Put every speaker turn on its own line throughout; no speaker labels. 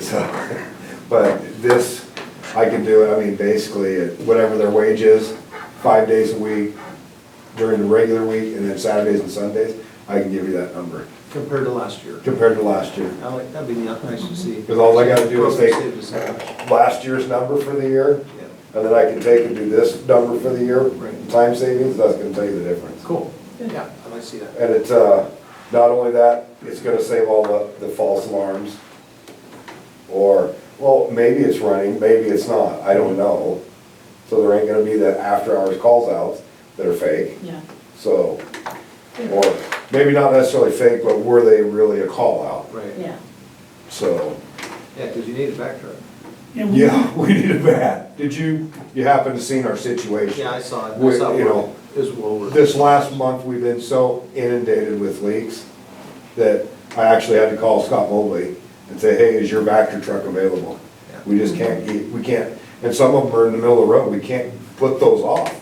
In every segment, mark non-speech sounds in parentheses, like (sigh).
So, (laughs) but this, I can do, it. I mean, basically, at whatever their wage is, five days a week during the regular week, and then Saturdays and Sundays, I can give you that number
compared to last year.
compared to last year.
I like, that'd be nice to see.
Because all I gotta do is take-
Save us that much.
Last year's number for the year,
Yeah.
and then I can take and do this number for the year,
Right.
time savings, that's gonna tell you the difference.
Cool, yeah, I'd like to see that.
And it's, uh, not only that, it's gonna save all the, the false alarms. Or, well, maybe it's running, maybe it's not, I don't know. So there ain't gonna be that after-hours calls outs that are fake,
Yeah.
so. Or maybe not necessarily fake, but were they really a call out?
Right,
Yeah.
So,
yeah, because you need a back truck.
yeah, (laughs) we need a bat. Did you, you happen to seen our situation?
Yeah, I saw it, I
With,
saw
you know,
it, it was well worth it.
This last month, we've been so inundated with leaks that I actually had to call Scott Mobley and say, hey, is your Vector truck available?
Yeah.
We just can't, get- we can't, and some of them are in the middle of the road, we can't put those off.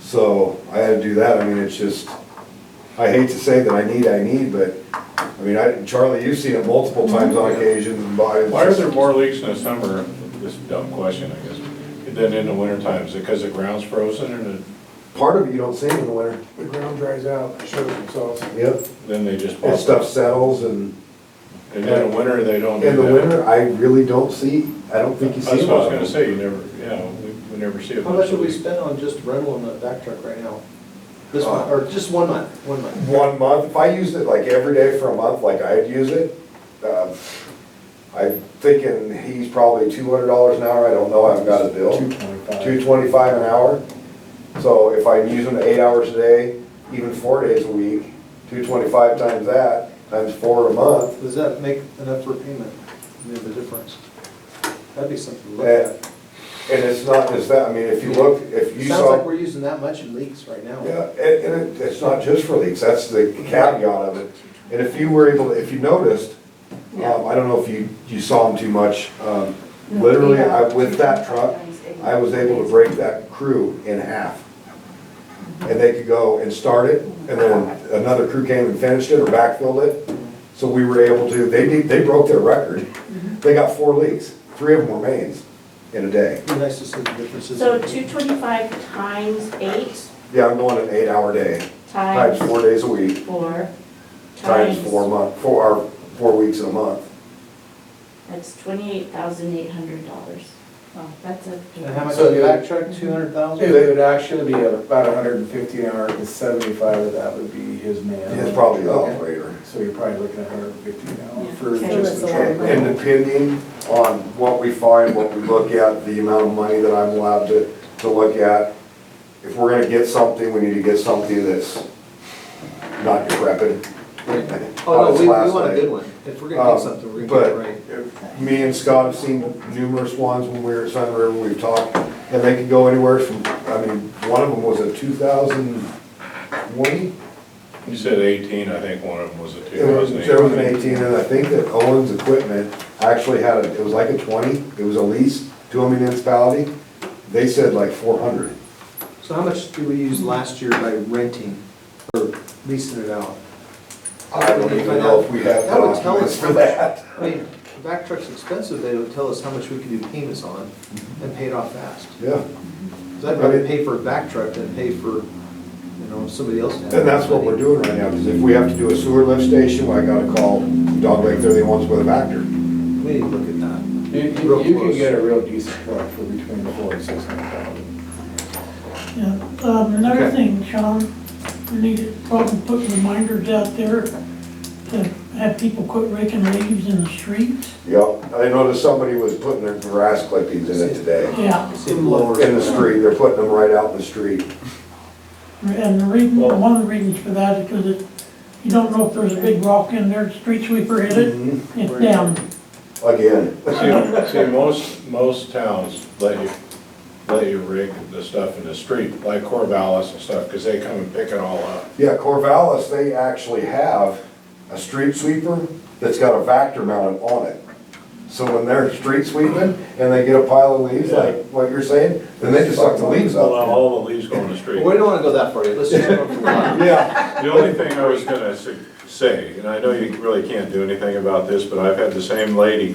So I had to do that, I mean, it's just, I hate to say that I need, I need, but, I mean, I, Charlie, you've seen it multiple times on occasions and by.
Why are there more leaks in the summer, this is a dumb question, I guess, than in the winter times? Is it because the ground's frozen and
Part of it you don't see in the winter,
The ground dries out, it shows themselves.
yep,
then they just pop
and
up?
stuff settles and.
And then in the winter, they don't do that?
In the winter, I really don't see, I don't think you see.
That's what I was
one.
gonna say, you never, yeah, we, we never see it.
How much do we spend on just rental on that back truck right now? This
Uh,
one, or just one month, one month?
One month, if I used it like every day for a month, like I'd use it, uh, I'm thinking he's probably two hundred dollars an hour, I don't know, I haven't got a bill. Two twenty-five. Two twenty-five an hour, so if I'm using it eight hours a day, even four days a week, two twenty-five times that, times four a month,
Does that make enough for payment, I mean, the difference? That'd be something to look
and,
at.
and it's not just that, I mean, if you look, if you
Sounds like
saw.
we're using that much in leaks right now.
Yeah, and, and it- it's not just for leaks, that's the caveat of it. And if you were able, if you noticed,
Yeah.
um, I don't know if you, you saw them too much, um, literally, I, with that truck, I was able to break that crew in half. And they could go and start it, and then another crew came and finished it or backfilled it. So we were able to, they did, they broke their record. They got four leaks, three of them were mains in a day.
Be nice to see the differences.
So two twenty-five times eight
Yeah, I'm going an eight-hour day, times
times
four days a week.
four
times four month, four, or four weeks in a month.
That's twenty-eight thousand eight hundred dollars. Wow, that's a.
And how much
So
is the
you-
back truck, two hundred
It
thousand?
would actually be about hundred and fifty an hour, and seventy-five of that would be his man.
It's probably the
Okay.
operator.
So you're probably looking at hundred and fifty an hour
Yeah.
for
Okay.
just the
So it's a
truck.
lot.
And depending on what we find, what we look at, the amount of money that I'm allowed to, to look at, if we're gonna get something, we need to get something that's not decrepit.
Oh, no, we, we
Last
want a
night.
good one. If we're gonna
Um,
get something, we're gonna get
but
it right.
Me and Scott have seen numerous ones when we were at Sun River, we've talked, and they can go anywhere from, I mean, one of them was a two thousand twenty?
You said eighteen, I think one of them was a two
It was,
thousand eight.
there was an eighteen, and I think that Owens Equipment actually had, a. it was like a twenty, it was a lease to a municipality. They said like four hundred.
So how much do we use last year by renting or leasing it out?
I don't even know if we have
That would tell
documents
us
(laughs) for
how much-
that.
I mean, the back truck's expensive, they would tell us how much we could do payments on
Mm-hmm.
and pay it off fast.
Yeah,
'Cause I'd rather pay for a back truck than pay for, you know, somebody else to have.
and that's what we're doing right now, because if we have to do a sewer lift station, well, I gotta call Dog Lake Thirty-One's with a factor.
We need to look at that.
You, you,
Real
you can
close.
get a real decent truck for between four and six hundred thousand.
Yeah, um, another
Okay.
thing, Sean, we need to probably put reminders out there to have people quit raking leaves in the streets.
Yep, I noticed somebody was putting their grass clippings in it today,
Yeah,
See the lower.
in the street, they're putting them right out in the street.
and the reason, one of the reasons for that is because it, you don't know if there's a big rock in there, street sweeper hit it,
Mhm.
it's down.
Again,
See, see, most, most towns let you, let you rig the stuff in the street, like Corvallis and stuff, because they come and pick it all up.
Yeah, Corvallis, they actually have a street sweeper that's got a vector mounted on it. So when they're street sweeping and they get a pile of leaves, like what you're saying, then they just suck the leaves
Well,
up.
all the leaves go in the street.
We don't wanna go that far yet, let's just. go for one.
Yeah,
The only thing I was gonna say, and I know you really can't do anything about this, but I've had the same lady